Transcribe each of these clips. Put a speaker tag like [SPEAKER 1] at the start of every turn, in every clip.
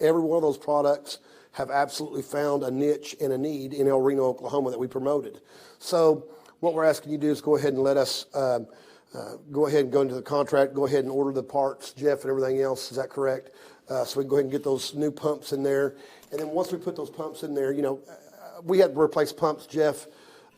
[SPEAKER 1] Every one of those products have absolutely found a niche and a need in El Reno, Oklahoma that we promoted. So what we're asking you to do is go ahead and let us um, uh, go ahead and go into the contract, go ahead and order the parts, Jeff, and everything else. Is that correct? Uh, so we can go ahead and get those new pumps in there. And then once we put those pumps in there, you know, uh, we had to replace pumps, Jeff,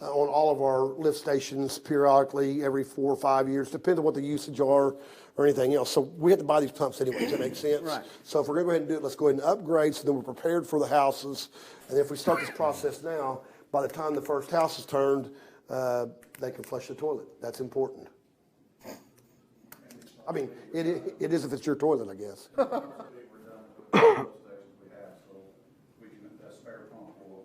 [SPEAKER 1] uh, on all of our lift stations periodically every four or five years, depending on what the usage are or anything else. So we had to buy these pumps anyway. Does that make sense?
[SPEAKER 2] Right.
[SPEAKER 1] So if we're going to go ahead and do it, let's go ahead and upgrade so then we're prepared for the houses. And if we start this process now, by the time the first house is turned, uh, they can flush the toilet. That's important. I mean, it, i- it is if it's your toilet, I guess.
[SPEAKER 3] we're done with the oil stations we have, so we can, that spare pump will.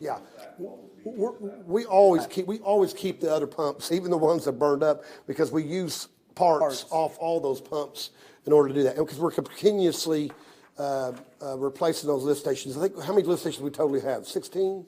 [SPEAKER 1] Yeah.
[SPEAKER 3] That
[SPEAKER 1] W-
[SPEAKER 3] will be-
[SPEAKER 1] We're, we always keep, we always keep the other pumps, even the ones that burned up, because we use parts
[SPEAKER 2] Parts.
[SPEAKER 1] off all those pumps in order to do that. And because we're continuously, uh, uh, replacing those lift stations. I think, how many lift stations we totally have? Sixteen?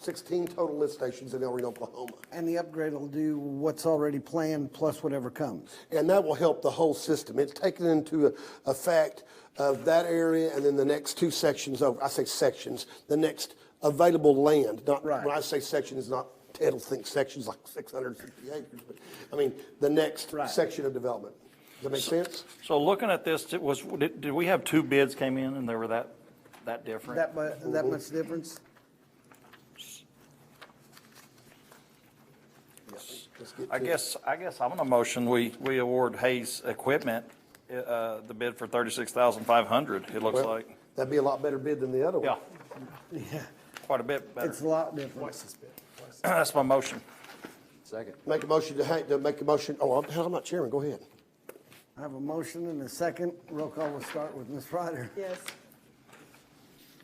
[SPEAKER 1] Sixteen total lift stations in El Reno, Oklahoma.
[SPEAKER 2] And the upgrade will do what's already planned plus whatever comes.
[SPEAKER 1] And that will help the whole system. It's taken into effect of that area and then the next two sections over, I say sections, the next available land, not,
[SPEAKER 2] Right.
[SPEAKER 1] when I say sections, not, Ted will think sections like six hundred and fifty acres, but, I mean, the next
[SPEAKER 2] Right.
[SPEAKER 1] section of development. Does that make sense?
[SPEAKER 4] So looking at this, it was, did, did we have two bids came in and they were that, that different?
[SPEAKER 2] That mu, that much difference?
[SPEAKER 1] Let's get
[SPEAKER 4] I
[SPEAKER 1] to-
[SPEAKER 4] guess, I guess I'm gonna motion, we, we award Hayes Equipment, uh, the bid for thirty-six thousand five hundred, it looks
[SPEAKER 1] well,
[SPEAKER 4] like.
[SPEAKER 1] That'd be a lot better bid than the other one.
[SPEAKER 4] Yeah,
[SPEAKER 2] Yeah,
[SPEAKER 4] quite a bit better.
[SPEAKER 2] it's a lot different.
[SPEAKER 4] That's my motion.
[SPEAKER 5] Second.
[SPEAKER 1] Make a motion to, ha- to make a motion, oh, I'm, hell, I'm not chairman, go ahead.
[SPEAKER 2] I have a motion and a second. Roll call will start with Ms. Ryder.
[SPEAKER 6] Yes.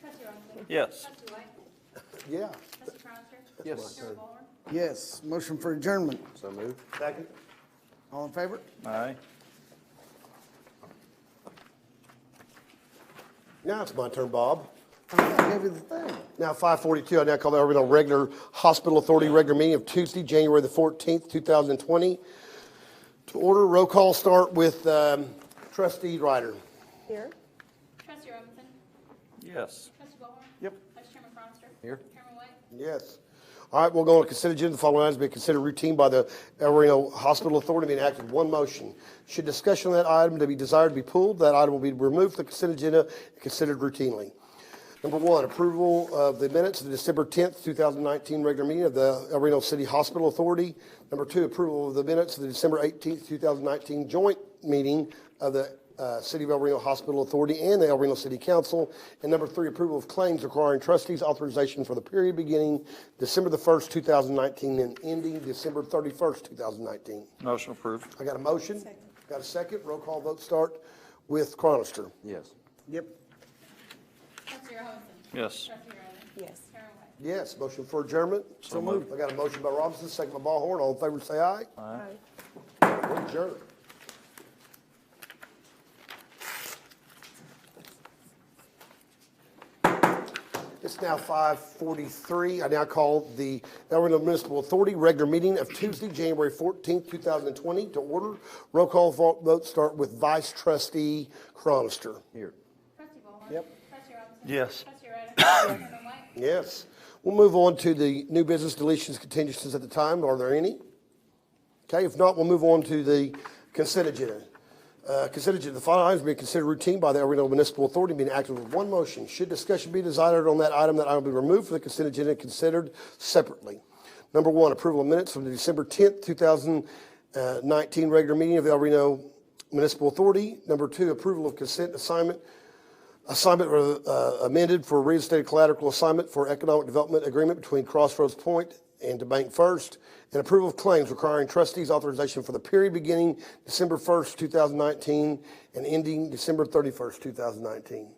[SPEAKER 7] Trustee Robinson.
[SPEAKER 4] Yes.
[SPEAKER 7] Trustee White.
[SPEAKER 1] Yeah.
[SPEAKER 7] Trustee Cronister.
[SPEAKER 5] Yes.
[SPEAKER 7] Chair Ballhorn.
[SPEAKER 2] Yes, motion for adjournment.
[SPEAKER 5] So move.
[SPEAKER 1] Second.
[SPEAKER 2] All in favor?
[SPEAKER 4] Aye.
[SPEAKER 1] Now it's my turn, Bob.
[SPEAKER 2] I gave you the thing.
[SPEAKER 1] Now, 5:42, I now call the Irwindale Regular Hospital Authority regular meeting of Tuesday, January the 14th, 2020. To order, roll call start with um, trustee Ryder.
[SPEAKER 6] Here.
[SPEAKER 7] Trustee Robinson.
[SPEAKER 4] Yes.
[SPEAKER 7] Trustee Ballhorn.
[SPEAKER 4] Yep.
[SPEAKER 7] Vice Chairman Cronister.
[SPEAKER 5] Here.
[SPEAKER 7] Chairman White.
[SPEAKER 1] Yes. All right, we'll go on to consider agenda. The following items be considered routine by the El Reno Hospital Authority being acted in one motion. Should discussion on that item to be desired to be pulled, that item will be removed from the consent agenda and considered routinely. Number one, approval of the minutes of the December 10th, 2019 regular meeting of the El Reno City Hospital Authority. Number two, approval of the minutes of the December 18th, 2019 joint meeting of the uh, City of El Reno Hospital Authority and the El Reno City Council. And number three, approval of claims requiring trustees authorization for the period beginning December the 1st, 2019 and ending December 31st, 2019.
[SPEAKER 4] Motion approved.
[SPEAKER 1] I got a motion? Got a second? Roll call vote start with Cronister.
[SPEAKER 5] Yes.
[SPEAKER 2] Yep.
[SPEAKER 7] Trustee Robinson.
[SPEAKER 4] Yes.
[SPEAKER 7] Trustee Ryder.
[SPEAKER 6] Yes.
[SPEAKER 7] Chairman White.
[SPEAKER 1] Yes, motion for adjournment?
[SPEAKER 4] So moved.
[SPEAKER 1] I got a motion by Robinson, second by Ballhorn. All in favor, say aye.
[SPEAKER 6] Aye.
[SPEAKER 1] We're adjourned. It's now 5:43. I now call the El Reno Municipal Authority regular meeting of Tuesday, January 14th, 2020 to order. Roll call vo- vote start with Vice Trustee Cronister.
[SPEAKER 5] Here.
[SPEAKER 7] Trustee Ballhorn.
[SPEAKER 1] Yep.
[SPEAKER 7] Trustee Robinson.
[SPEAKER 4] Yes.
[SPEAKER 7] Trustee Ryder. Chairman White.
[SPEAKER 1] Yes. We'll move on to the new business deletions, contingencies at the time. Are there any? Okay, if not, we'll move on to the consent agenda. Uh, Consent agenda, the following items being considered routine by the El Reno Municipal Authority being acted with one motion. Should discussion be desired on that item, that item will be removed from the consent agenda and considered separately. Number one, approval of minutes from the December 10th, 2019 uh, regular meeting of the El Reno Municipal Authority. Number two, approval of consent assignment assignment uh, amended for reinstated collateral assignment for economic development agreement between Crossroads Point and to Bank First, and approval of claims requiring trustees authorization for the period beginning December 1st, 2019, and ending December 31st, 2019.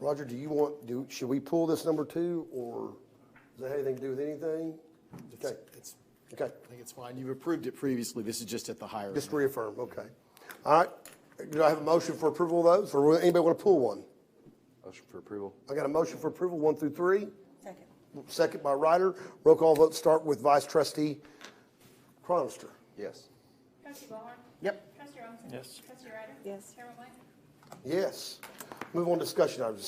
[SPEAKER 1] Roger, do you want, do, should we pull this number two, or does that have anything to do with anything? Okay,
[SPEAKER 8] It's,
[SPEAKER 1] okay,
[SPEAKER 8] I think it's fine. You've approved it previously. This is just at the higher.
[SPEAKER 1] just
[SPEAKER 8] end.
[SPEAKER 1] reaffirm, okay. All right, do I have a motion for approval of those, or anybody want to pull one?
[SPEAKER 5] Motion for approval.
[SPEAKER 1] I got a motion for approval, one through three?
[SPEAKER 6] Second.
[SPEAKER 1] Second by Ryder. Roll call vote start with Vice Trustee Cronister.
[SPEAKER 5] Yes.
[SPEAKER 7] Trustee Ballhorn.
[SPEAKER 2] Yep.
[SPEAKER 7] Trustee Robinson.
[SPEAKER 4] Yes.
[SPEAKER 7] Trustee Ryder.
[SPEAKER 6] Yes.
[SPEAKER 7] Chairman White.
[SPEAKER 1] Yes. Move on to discussion items.